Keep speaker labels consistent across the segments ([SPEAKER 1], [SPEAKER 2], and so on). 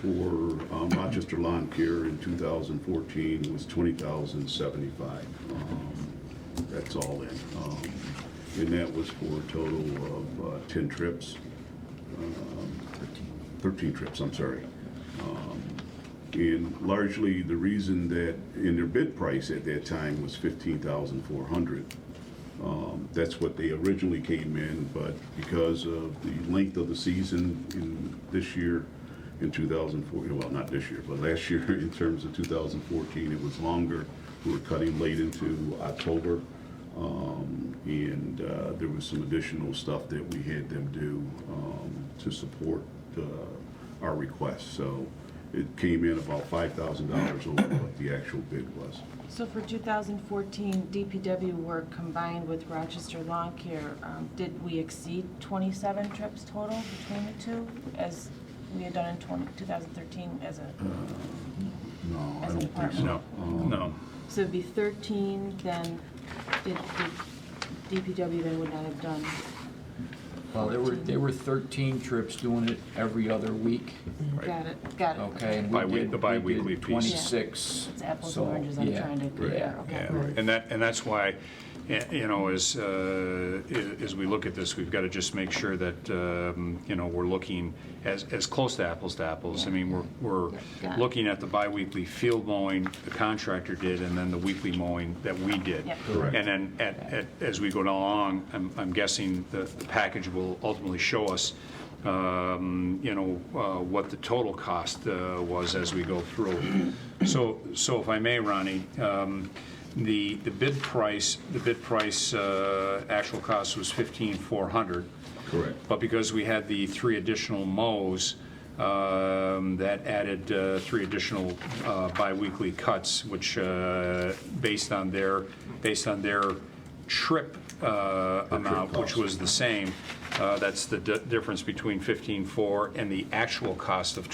[SPEAKER 1] for um, Rochester Lawn Care in 2014 was 20,075. Um, That's all in. Um, And that was for a total of uh, 10 trips. Um, 13 trips, I'm sorry. Um, And largely, the reason that, in their bid price at that time was 15,400. Um, That's what they originally came in, but because of the length of the season in this year, in 2014, well, not this year, but last year, in terms of 2014, it was longer. We were cutting late into October, um, and uh, there was some additional stuff that we had them do um, to support uh, our request. So it came in about $5,000 over what the actual bid was.
[SPEAKER 2] So for 2014, DPW work combined with Rochester Lawn Care, um, did we exceed 27 trips total between the two as we had done in 20 2013 as a,
[SPEAKER 3] Mm-hmm.
[SPEAKER 1] No, I
[SPEAKER 2] As a
[SPEAKER 1] don't think so.
[SPEAKER 2] department.
[SPEAKER 1] Um,
[SPEAKER 4] No.
[SPEAKER 2] so it'd be 13, then did did DPW then would not have done,
[SPEAKER 3] Well, there were, there were 13 trips doing it every other week,
[SPEAKER 4] Right.
[SPEAKER 2] got it, got it.
[SPEAKER 3] okay? and we
[SPEAKER 4] Biwe-
[SPEAKER 3] did-
[SPEAKER 4] the biweekly
[SPEAKER 3] we did
[SPEAKER 4] piece.
[SPEAKER 3] 26.
[SPEAKER 2] It's apples
[SPEAKER 3] so,
[SPEAKER 2] and oranges, I'm
[SPEAKER 3] yeah,
[SPEAKER 2] trying to
[SPEAKER 3] yeah.
[SPEAKER 2] compare, okay.
[SPEAKER 4] Yeah, and that, and that's why, y- you know, as, uh, i- as we look at this, we've got to just make sure that, um, you know, we're looking as, as close to apples to apples. I mean, we're, we're
[SPEAKER 2] got it.
[SPEAKER 4] looking at the biweekly field mowing the contractor did, and then the weekly mowing that we did.
[SPEAKER 2] Yep.
[SPEAKER 1] Correct.
[SPEAKER 4] And then at, at, as we go along, I'm, I'm guessing the, the package will ultimately show us, um, you know, uh, what the total cost, uh, was as we go through. So, so if I may, Ronnie, um, the, the bid price, the bid price, uh, actual cost was fifteen four hundred.
[SPEAKER 1] Correct.
[SPEAKER 4] But because we had the three additional mows, um, that added uh, three additional uh, biweekly cuts, which, uh, based on their, based on their trip uh, amount, which
[SPEAKER 1] cost.
[SPEAKER 4] was the same, uh, that's the di- difference between 15.4 and the actual cost of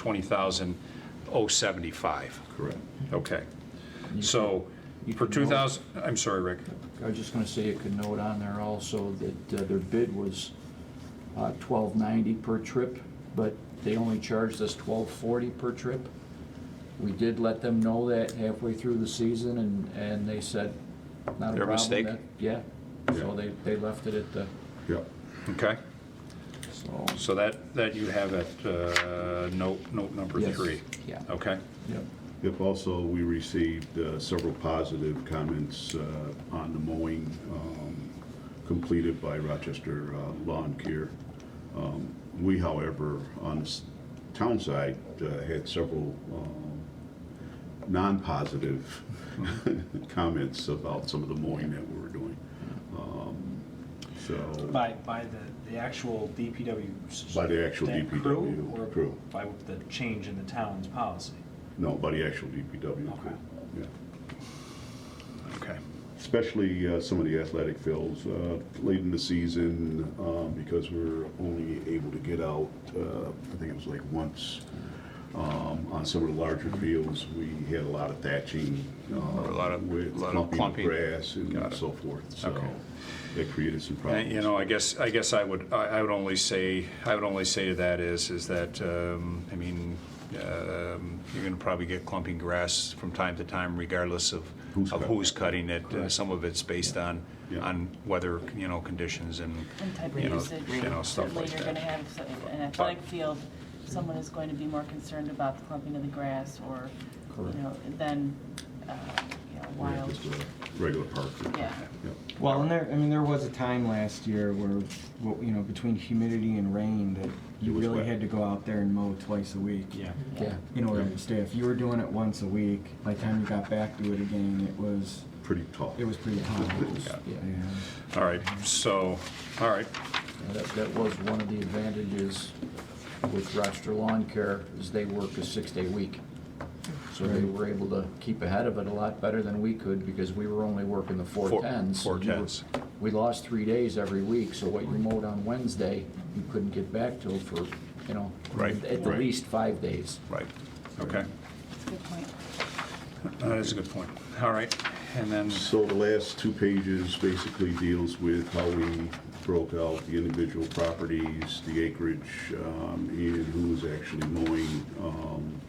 [SPEAKER 4] 20,075.
[SPEAKER 1] Correct.
[SPEAKER 4] Okay. So
[SPEAKER 3] You
[SPEAKER 4] for
[SPEAKER 3] can
[SPEAKER 4] 2,000, I'm sorry, Rick.
[SPEAKER 3] I was just going to say, you could note on there also that uh, their bid was uh, 1290 per trip, but they only charged us 1240 per trip. We did let them know that halfway through the season, and, and they said, not a problem.
[SPEAKER 4] Their mistake.
[SPEAKER 3] that- Yeah, so they, they left it at the,
[SPEAKER 1] Yep.
[SPEAKER 4] Okay?
[SPEAKER 3] so.
[SPEAKER 4] So that, that you have at uh, note, note number
[SPEAKER 3] Yes.
[SPEAKER 4] three?
[SPEAKER 3] Yeah.
[SPEAKER 4] Okay?
[SPEAKER 3] Yep.
[SPEAKER 1] Yep, also, we received uh, several positive comments uh, on the mowing um, completed by Rochester uh, Lawn Care. Um, We, however, on the s- town side, uh, had several um, non-positive comments about some of the mowing that we were doing. Um, So,
[SPEAKER 5] By, by the, the actual DPW. s-
[SPEAKER 1] By the actual
[SPEAKER 5] that
[SPEAKER 1] DPW
[SPEAKER 5] crew, or
[SPEAKER 1] crew.
[SPEAKER 5] By the change in the town's policy?
[SPEAKER 1] no, by the actual DPW.
[SPEAKER 5] Okay.
[SPEAKER 1] Yeah.
[SPEAKER 4] Okay.
[SPEAKER 1] especially uh, some of the athletic fields uh, late in the season um, because we're only able to get out. Uh, I think it was like once um, on some of the larger fields. We had a lot of thatching, uh,
[SPEAKER 4] A lot of-
[SPEAKER 1] with
[SPEAKER 4] lot of clumping.
[SPEAKER 1] grass and
[SPEAKER 4] Got it.
[SPEAKER 1] so forth. So
[SPEAKER 4] Okay.
[SPEAKER 1] that created some
[SPEAKER 4] Uh,
[SPEAKER 1] problems.
[SPEAKER 4] You know, I guess, I guess I would, I I would only say, I would only say to that is, is that, um, I mean, um, you're going to probably get clumping grass from time to time regardless of,
[SPEAKER 1] Who's
[SPEAKER 4] of
[SPEAKER 1] cutting.
[SPEAKER 4] who's cutting it. Uh, Some of it's based on,
[SPEAKER 1] Yeah.
[SPEAKER 4] on weather, you know, conditions and,
[SPEAKER 2] And type of
[SPEAKER 4] you know,
[SPEAKER 2] usage.
[SPEAKER 4] you know, stuff
[SPEAKER 2] Certainly,
[SPEAKER 4] like
[SPEAKER 2] you're gonna
[SPEAKER 4] that.
[SPEAKER 2] have s- an athletic field, someone is going to be more concerned about the clumping of the grass or,
[SPEAKER 3] Correct.
[SPEAKER 2] you know, than, uh, you know,
[SPEAKER 1] Yeah,
[SPEAKER 2] wild,
[SPEAKER 1] just a regular park.
[SPEAKER 2] yeah.
[SPEAKER 1] Yeah.
[SPEAKER 6] Well, and there, I mean, there was a time last year where, well, you know, between humidity and rain, that you
[SPEAKER 1] It was
[SPEAKER 6] really
[SPEAKER 1] wet.
[SPEAKER 6] had to go out there and mow twice a week.
[SPEAKER 3] Yeah.
[SPEAKER 6] In order to stay. If you were doing it once a week, by the time you got back to it again, it was,
[SPEAKER 1] Pretty tall.
[SPEAKER 6] it was pretty hot.
[SPEAKER 4] Yeah.
[SPEAKER 6] Yeah.
[SPEAKER 4] All right, so, all right,
[SPEAKER 3] Yeah, That, that was one of the advantages with Rochester Lawn Care, is they work a six-day week. So they were able to keep ahead of it a lot better than we could, because we were only working the
[SPEAKER 4] Four-
[SPEAKER 3] four tens.
[SPEAKER 4] four tens.
[SPEAKER 3] We lost three days every week, so what you mowed on Wednesday, you couldn't get back till for, you know,
[SPEAKER 4] Right,
[SPEAKER 3] at
[SPEAKER 4] right.
[SPEAKER 3] least five days.
[SPEAKER 4] right, okay.
[SPEAKER 2] That's a good point.
[SPEAKER 4] That is a good point. All right, and then,
[SPEAKER 1] So the last two pages basically deals with how we broke out the individual properties, the acreage, um, and who was actually mowing, um,